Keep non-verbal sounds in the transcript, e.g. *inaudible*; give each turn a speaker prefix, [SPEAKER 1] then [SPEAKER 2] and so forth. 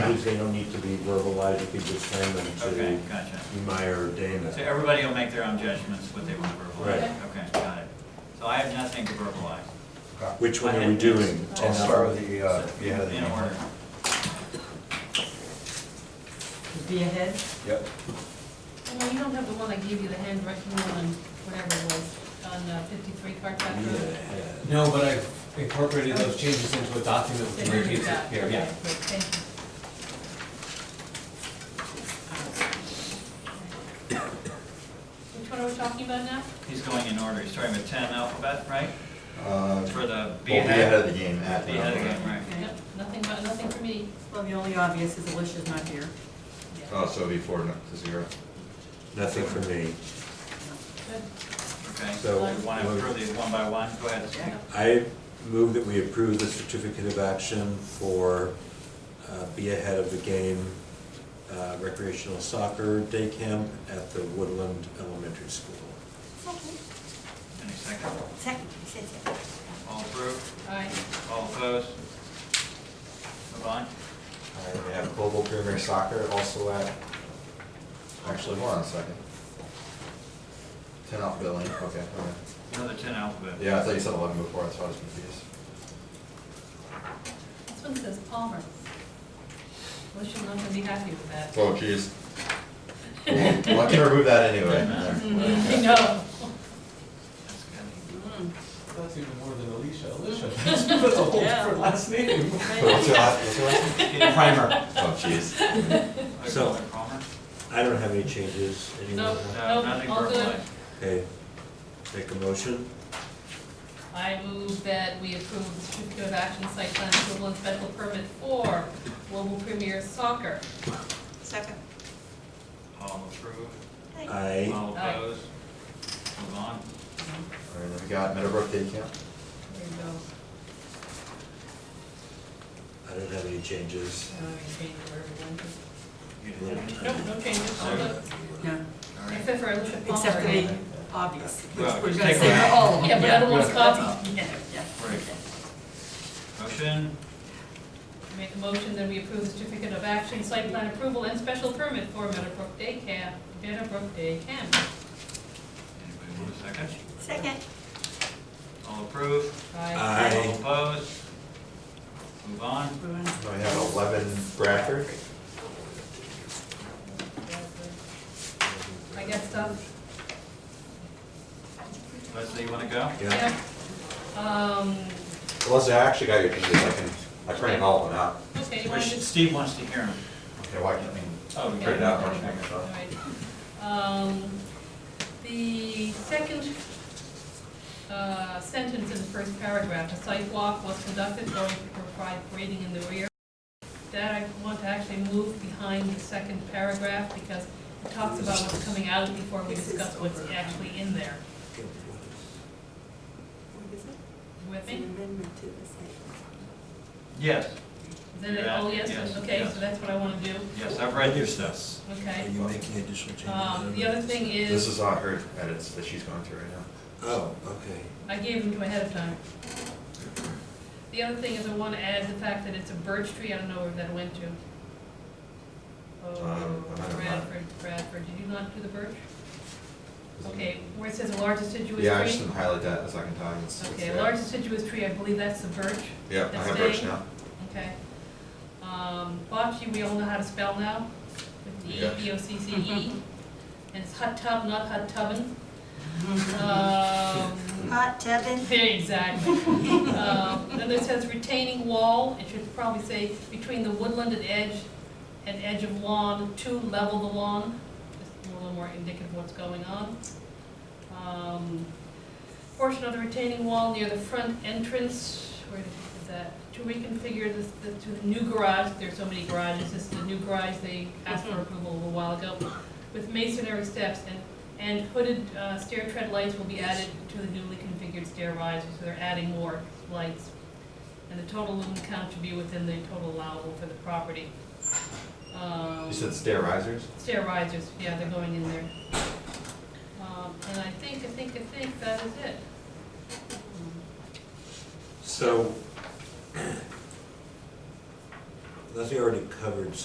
[SPEAKER 1] because they don't need to be verbalized, you can just send
[SPEAKER 2] Okay,
[SPEAKER 1] them
[SPEAKER 2] gotcha.
[SPEAKER 1] to Meyer or Dana.
[SPEAKER 2] So everybody will make their own judgments what they want to verbalize.
[SPEAKER 1] Right.
[SPEAKER 2] Okay, got it. So I have nothing to verbalize.
[SPEAKER 1] Which one are we doing?
[SPEAKER 3] I'll start with the, uh,
[SPEAKER 2] So,
[SPEAKER 3] yeah,
[SPEAKER 2] In order.
[SPEAKER 3] the,
[SPEAKER 4] Be ahead?
[SPEAKER 3] yep.
[SPEAKER 5] Well, you don't have the one that gave you the handwritten one, whatever it was, on uh, fifty-three
[SPEAKER 1] E
[SPEAKER 5] Carpenter Road?
[SPEAKER 6] No, but I've incorporated those changes into a document with
[SPEAKER 5] Didn't
[SPEAKER 6] the
[SPEAKER 5] read
[SPEAKER 6] changes
[SPEAKER 5] that.
[SPEAKER 6] here,
[SPEAKER 5] Okay,
[SPEAKER 6] yeah.
[SPEAKER 5] good, thank you. Which one are we talking about now?
[SPEAKER 2] He's going in order. He's starting with ten alphabet, right?
[SPEAKER 3] Uh,
[SPEAKER 2] For the
[SPEAKER 3] We'll
[SPEAKER 2] B
[SPEAKER 3] be ahead
[SPEAKER 2] head.
[SPEAKER 3] of the game, that.
[SPEAKER 2] Be ahead again, right?
[SPEAKER 5] Yep, Nothing, but nothing for me.
[SPEAKER 4] Well, the only obvious is Alicia's not here.
[SPEAKER 5] Yeah.
[SPEAKER 3] Oh, so before, not to zero.
[SPEAKER 1] Nothing for me.
[SPEAKER 5] Good.
[SPEAKER 2] Okay.
[SPEAKER 1] So-
[SPEAKER 2] You want to approve these one by one? Go ahead.
[SPEAKER 5] Yeah.
[SPEAKER 1] I move that we approve the certificate of action for uh, Be Ahead of the Game uh, recreational soccer day camp at the Woodland Elementary School.
[SPEAKER 2] Any second?
[SPEAKER 7] Second, you said second.
[SPEAKER 2] All approved?
[SPEAKER 5] Aye.
[SPEAKER 2] All opposed? Move on.
[SPEAKER 3] And we have Global Premier Soccer also at, actually, hold on a second. Ten out billing, okay, okay.
[SPEAKER 2] Another ten alphabet.
[SPEAKER 3] Yeah, I thought you said eleven before, that's why I was confused.
[SPEAKER 5] This one says Palmer. Alicia's not gonna be happy with that. *laughs*
[SPEAKER 3] Oh, geez. Well, Let's remove that *laughs* anyway.
[SPEAKER 5] No.
[SPEAKER 2] That's good.
[SPEAKER 6] That's even more than Alicia, Alicia, that's a whole different last name.
[SPEAKER 3] What's your last, what's your last?
[SPEAKER 2] Okay,
[SPEAKER 3] Primer. Oh, jeez.
[SPEAKER 1] So-
[SPEAKER 2] Alderman Palmer?
[SPEAKER 1] I don't have any changes. Anyone?
[SPEAKER 5] Nope.
[SPEAKER 2] No, nothing
[SPEAKER 5] all good.
[SPEAKER 2] verbalized.
[SPEAKER 1] Okay. Make a motion.
[SPEAKER 5] I move that we approve the certificate of action site plan approval and special permit for Global Premier Soccer.
[SPEAKER 7] Second.
[SPEAKER 2] All approved?
[SPEAKER 1] I,
[SPEAKER 2] All
[SPEAKER 5] Aye.
[SPEAKER 2] opposed? Move on.
[SPEAKER 3] All right, then we got Meadowbrook Day Camp.
[SPEAKER 5] There you go.
[SPEAKER 1] I don't have any changes.
[SPEAKER 4] Uh, we changed it where we went.
[SPEAKER 2] You did it.
[SPEAKER 5] Nope, no changes, all good.
[SPEAKER 4] No,
[SPEAKER 2] All right.
[SPEAKER 5] Except for Alicia Palmer.
[SPEAKER 4] except for the obvious, which
[SPEAKER 2] Well,
[SPEAKER 4] we're
[SPEAKER 2] just
[SPEAKER 4] gonna
[SPEAKER 2] take
[SPEAKER 4] say
[SPEAKER 2] one
[SPEAKER 4] for
[SPEAKER 2] out.
[SPEAKER 4] all of them.
[SPEAKER 5] Oh, Yeah, but I don't want to copy.
[SPEAKER 4] Yeah, yeah.
[SPEAKER 2] Right. Motion,
[SPEAKER 5] Make a motion that we approve the certificate of action site plan approval and special permit for Meadowbrook Day Camp, Meadowbrook Day Camp.
[SPEAKER 2] anybody want a second?
[SPEAKER 7] Second.
[SPEAKER 2] All approved?
[SPEAKER 5] Aye.
[SPEAKER 2] All
[SPEAKER 1] I,
[SPEAKER 2] opposed? Move on.
[SPEAKER 4] We're gonna-
[SPEAKER 3] Then we have eleven Bradford.
[SPEAKER 5] I uh, got stuff.
[SPEAKER 2] Leslie, you wanna go?
[SPEAKER 1] yeah.
[SPEAKER 5] Um,
[SPEAKER 3] Leslie, I actually got your changes, I can, I printed all of them out.
[SPEAKER 5] okay, you
[SPEAKER 2] Wish-
[SPEAKER 5] want to just
[SPEAKER 2] Steve wants to hear him.
[SPEAKER 3] Okay, why can't we?
[SPEAKER 2] Oh,
[SPEAKER 3] Print it out, Marcia.
[SPEAKER 5] All right. Um, The second uh, sentence in the first paragraph, a site walk was conducted going to provide grading in the rear. That I want to actually move behind the second paragraph because it talks about what's coming out before we discuss what's actually in there.
[SPEAKER 7] What is it?
[SPEAKER 5] You With
[SPEAKER 7] It's an
[SPEAKER 5] me?
[SPEAKER 7] amendment to the site.
[SPEAKER 2] Yes,
[SPEAKER 5] Is that it? Oh, yes,
[SPEAKER 2] Yes,
[SPEAKER 5] okay,
[SPEAKER 2] yes.
[SPEAKER 5] so that's what I want to do,
[SPEAKER 2] yes, I've read your stuff.
[SPEAKER 1] Are
[SPEAKER 5] okay.
[SPEAKER 1] you making additional changes?
[SPEAKER 5] Um, The other thing
[SPEAKER 3] This
[SPEAKER 5] is,
[SPEAKER 3] is on her edits that she's going through right now.
[SPEAKER 1] Oh, okay.
[SPEAKER 5] I gave them to ahead of time. The other thing is I want to add the fact that it's a birch tree, I don't know where that went to. Oh,
[SPEAKER 3] Um, I don't know.
[SPEAKER 5] Bradford, Bradford, did you not do the birch? Okay, where it says a large deciduous
[SPEAKER 3] Yeah, I just
[SPEAKER 5] tree?
[SPEAKER 3] didn't highlight that a second time. It's- it's
[SPEAKER 5] Okay, a
[SPEAKER 3] there.
[SPEAKER 5] large deciduous tree, I believe that's the birch,
[SPEAKER 3] Yeah, I
[SPEAKER 5] that's
[SPEAKER 3] have Birch
[SPEAKER 5] staying.
[SPEAKER 3] now.
[SPEAKER 5] okay. Um, bocce, we all know how to spell now, with D E
[SPEAKER 3] Yeah.
[SPEAKER 5] B O C C
[SPEAKER 3] *laughs*
[SPEAKER 5] E. And it's hot tub, not hot tubbin. Um,
[SPEAKER 7] Hot tubbing.
[SPEAKER 5] Exactly. Um, Then it says retaining wall, it should probably say between the woodland and edge, and edge of lawn, to level the lawn, just a little more indicative of what's going on. Um, Portion of the retaining wall near the front entrance, where is that, to reconfigure this, the- to the new garage, there's so many garages, this is the new garage, they asked for approval a little while ago, with masonry steps and and hooded uh, stair tread lights will be added to the newly configured stair rise, so they're adding more lights. And the total lumen count should be within the total allowable for the property. Um,
[SPEAKER 3] You said stair risers?
[SPEAKER 5] Stair risers, yeah, they're going in there. Um, And I think, I think, I think that is it.
[SPEAKER 1] So, Leslie already covered